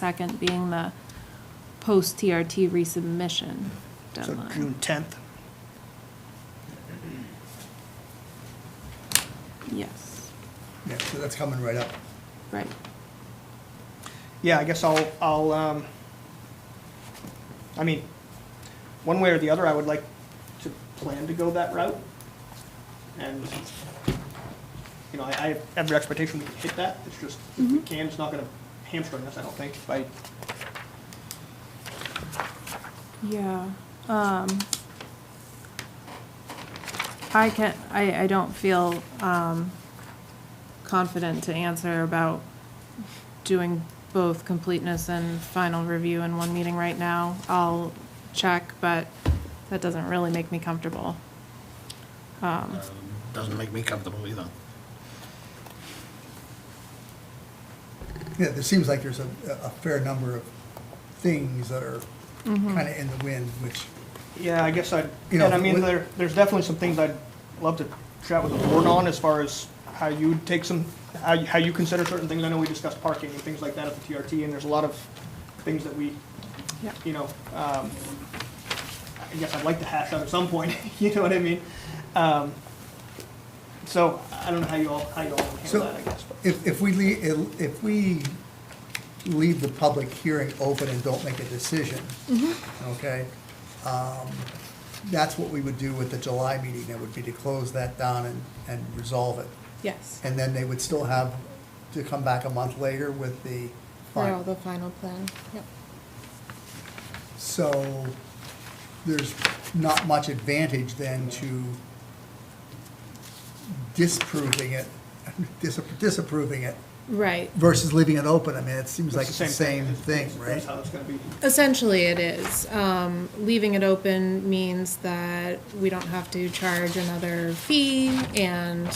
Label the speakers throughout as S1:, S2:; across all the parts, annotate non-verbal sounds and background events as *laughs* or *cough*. S1: second being the post-TRT resubmission
S2: So
S1: deadline.
S2: June 10th.
S1: Yes,
S2: Yeah, so that's coming right up.
S1: right.
S2: Yeah, I guess I'll, I'll, um, I mean, one way or the other, I would like to plan to go that route. And, you know, I, I have every expectation we can hit that. It's just, if we can, it's not gonna hamstring us, I don't think, by,
S1: Yeah, um, I can, I, I don't feel, um, confident to answer about doing both completeness and final review in one meeting right now. I'll check, but that doesn't really make me comfortable. um,
S3: Doesn't make me comfortable either.
S4: Yeah, there seems like there's a, a fair number of things that are kind of in the wind, which,
S2: yeah, I guess I,
S4: You know,
S2: and I mean,
S4: with-
S2: there, there's definitely some things I'd love to chat with the board on as far as how you take some, how, you- how you consider certain things. I know we discussed parking and things like that at the TRT, and there's a lot of things that we
S1: Yeah.
S2: you know, um, I guess I'd like to hash out at some point, *laughs* you know what I mean? Um, so I don't know how you all, how you all handle
S4: So-
S2: that, I guess. but-
S4: if, if we leave, if we leave the public hearing open and don't make a decision, okay? um, That's what we would do with the July meeting, that would be to close that down and, and resolve it.
S5: Yes,
S4: And then they would still have to come back a month later with the
S5: for all
S4: final.
S5: the final plan, yep.
S4: So there's not much advantage then to disproving it, *laughs* dis- disapproving it
S5: Right.
S4: versus leaving it open. I mean, it seems
S2: It's
S4: like it's the same thing, right?
S2: That's how it's gonna be.
S5: Essentially, it is. Um, leaving it open means that we don't have to charge another fee and,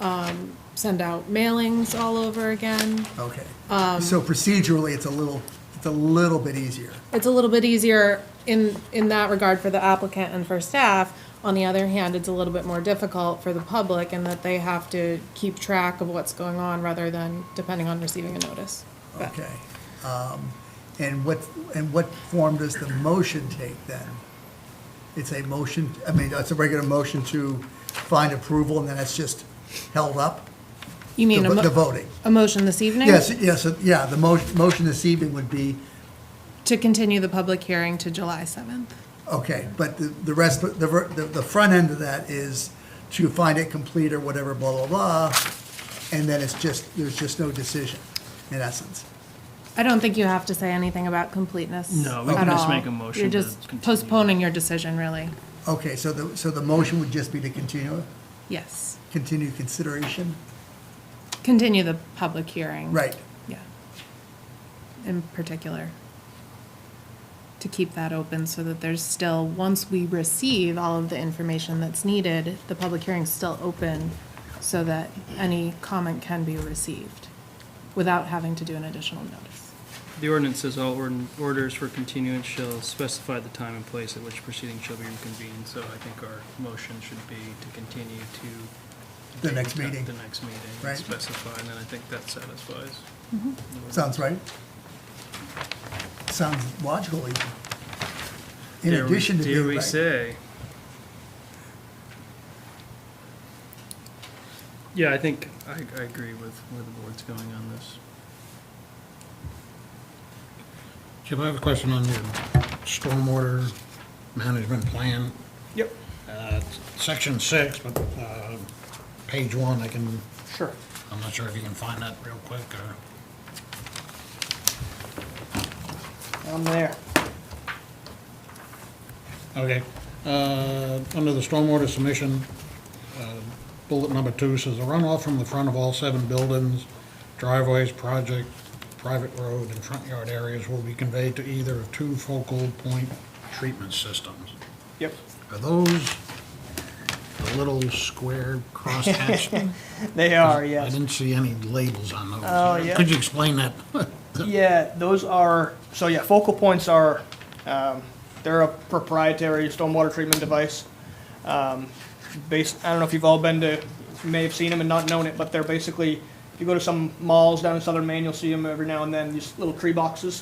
S5: um, send out mailings all over again.
S4: Okay.
S5: Um,
S4: So procedurally, it's a little, it's a little bit easier.
S5: It's a little bit easier in, in that regard for the applicant and for staff. On the other hand, it's a little bit more difficult for the public in that they have to keep track of what's going on rather than depending on receiving a notice. But-
S4: Okay. Um, And what, and what form does the motion take then? It's a motion, I mean, it's a regular motion to find approval and then it's just held up?
S5: You mean
S4: The
S5: a
S4: vo-
S5: mo-
S4: the voting.
S5: A motion this evening?
S4: Yes, yes, yeah, the mo- motion this evening would be,
S5: To continue the public hearing to July 7th.
S4: okay, but the the rest, the, the the front end of that is to find it complete or whatever, blah, blah, blah, and then it's just, there's just no decision, in essence.
S5: I don't think you have to say anything about completeness
S6: No, we can
S5: at
S6: just
S5: all.
S6: make a motion
S5: You're
S6: to
S5: just
S6: continue.
S5: postponing your decision, really.
S4: Okay, so the, so the motion would just be to continue,
S5: Yes.
S4: continue consideration?
S5: Continue the public hearing.
S4: Right,
S5: Yeah. In particular. To keep that open so that there's still, once we receive all of the information that's needed, the public hearing's still open so that any comment can be received without having to do an additional notice.
S6: The ordinance says all ordin- orders for continuance shall specify the time and place at which proceeding shall be reconvened, so I think our motion should be to continue to.
S4: The next
S6: date, uh,
S4: meeting.
S6: The next meeting,
S4: Right. Mm-hmm.
S6: specify, and then I think that satisfies.
S4: sounds right. Sounds logical even. In
S6: Dare we-
S4: addition to
S6: Dare
S4: being
S6: we
S4: right.
S6: say? Yeah, I think, I, I agree with where the board's going on this.
S3: Jim, I have a question on your stormwater management plan.
S2: Yep,
S3: Uh, it's Section six, but uh, page one, I can,
S2: sure.
S3: I'm not sure if you can find that real quick or,
S2: I'm there.
S3: okay. Uh, Under the stormwater submission, uh, bullet number two says the runoff from the front of all seven buildings, driveways, project, private road, and front yard areas will be conveyed to either of two focal point treatment systems.
S2: Yep.
S3: Are those the little square crosshatched?
S2: They are, *laughs*
S3: I
S2: yes.
S3: didn't see any labels on those.
S2: Oh, yeah.
S3: Could you explain that?
S2: Yeah, those are, so yeah, focal points are, um, they're a proprietary stormwater treatment device. Um, based, I don't know if you've all been to, you may have seen them and not known it, but they're basically, if you go to some malls down in southern Maine, you'll see them every now and then, these little tree boxes.